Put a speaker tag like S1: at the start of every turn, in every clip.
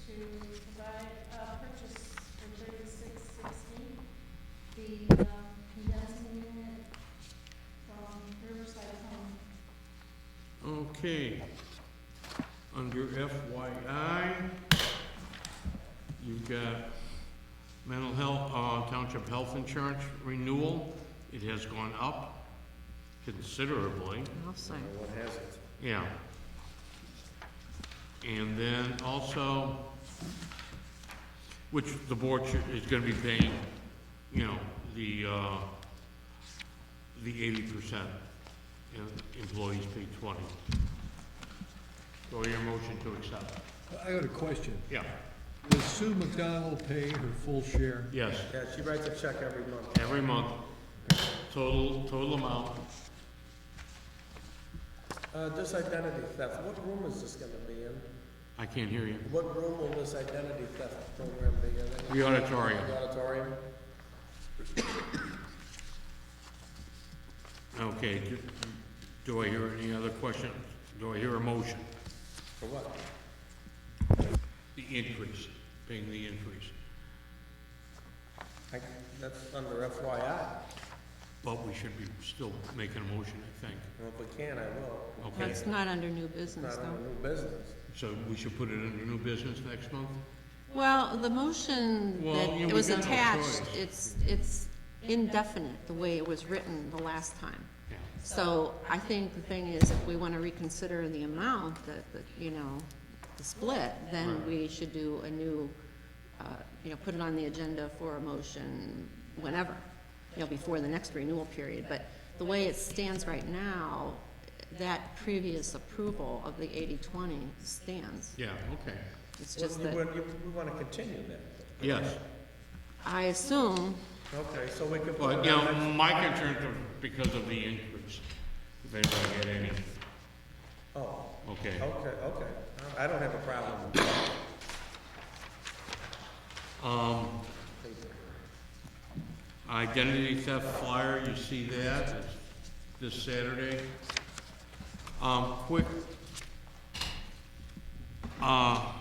S1: uh, the uh, condensing unit from Riverside Home.
S2: Okay. Under FYI, you've got mental health, uh, township health insurance renewal. It has gone up considerably,
S3: I'll say.
S4: What has it?
S2: yeah. And then also, which the board should- is gonna be paying, you know, the, uh, the eighty percent, and employees pay twenty. So your motion to accept,
S5: I got a question.
S2: yeah,
S5: Does Sue McDonald pay her full share?
S2: yes,
S4: Yeah, she writes a check every month.
S2: every month, total, total amount,
S4: Uh, this identity theft, what room is this gonna be in?
S2: I can't hear you.
S4: What room will this identity theft program be in?
S2: The auditorium.
S4: The auditorium?
S2: Okay, do- do I hear any other questions? Do I hear a motion?
S4: For what?
S2: The increase, paying the increase,
S4: I- That's under FYI.
S2: but we should be still making a motion, I think,
S4: Well, if we can, I will.
S2: okay?
S3: That's not under new
S4: It's
S3: business,
S4: not
S3: though.
S4: under new business.
S2: So we should put it under new business next month?
S3: Well, the motion
S2: Well,
S3: that
S2: you know,
S3: it
S2: we
S3: was
S2: got no
S3: attached,
S2: choice.
S3: it's, it's indefinite, the way it was written the last time.
S2: Yeah.
S3: So I think the thing is, if we want to reconsider the amount that, that, you know, the split, then
S2: Right.
S3: we should do a new, uh, you know, put it on the agenda for a motion whenever, you know, before the next renewal period. But the way it stands right now, that previous approval of the 80-20 stands.
S2: Yeah, okay,
S3: It's just
S4: We-
S3: that,
S4: We we wanna continue that.
S2: yes.
S3: I assume,
S4: Okay, so we could. put
S2: Well,
S4: it
S2: you
S4: on
S2: know,
S4: next-
S2: my concern is because of the increase, if anybody get any,
S4: Oh,
S2: okay.
S4: okay, okay. I don't have a problem with
S2: Um, identity theft flyer, you see that, it's this Saturday. Um, quick, uh,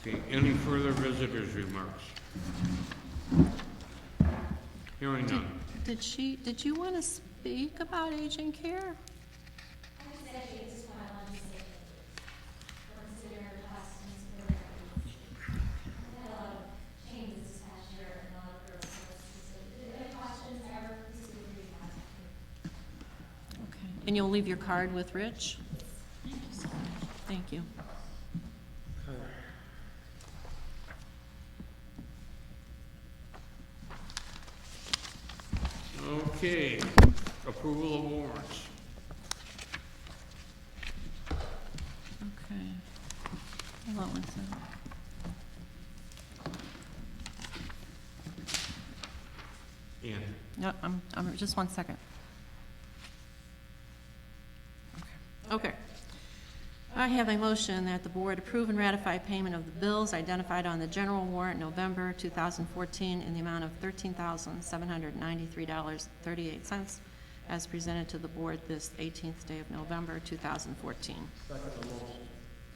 S2: okay, any further visitors' remarks? Hearing none.
S3: did she, did you want to speak about aging care?
S1: I just actually just want to legislate, consider lessons for the We've had a lot of changes this past year and a lot of growth. So if there are any questions, ever, please feel free to contact me.
S3: Okay. And you'll leave your card with Rich? Thank you.
S2: Okay, approval of warrants.
S3: Okay. Hold on one second.
S2: Ian,
S3: No, I'm, I'm, just one second. Okay. I have a motion that the board approve and ratify payment of the bills identified on the general warrant November 2014 in the amount of $13,793.38 as presented to the board this 18th day of November 2014.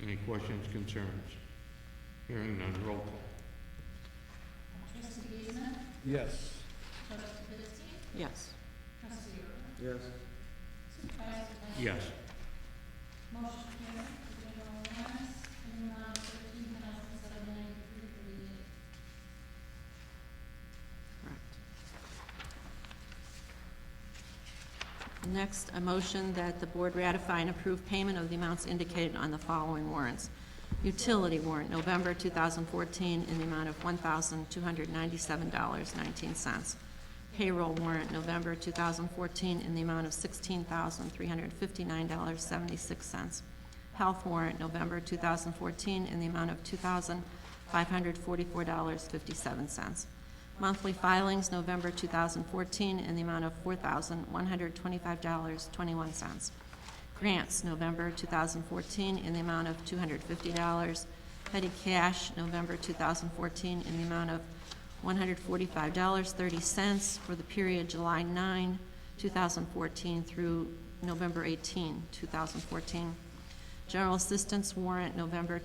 S2: any questions, concerns? Hearing none, roll call.
S5: Yes.
S3: Yes.
S4: it. Yes.
S2: Yes.
S3: Correct. Next, a motion that the board ratify and approve payment of the amounts indicated on the following warrants. Utility warrant, November 2014, in the amount of $1,297.19. Payroll warrant, November 2014, in the amount of $16,359.76. Health warrant, November 2014, in the amount of $2,544.57. Monthly filings, November 2014, in the amount of $4,125.21. Grants, November 2014, in the amount of $250. Petty cash, November 2014, in the amount of $145.30 for the period July 9, 2014 through November 18, 2014. General assistance warrant, November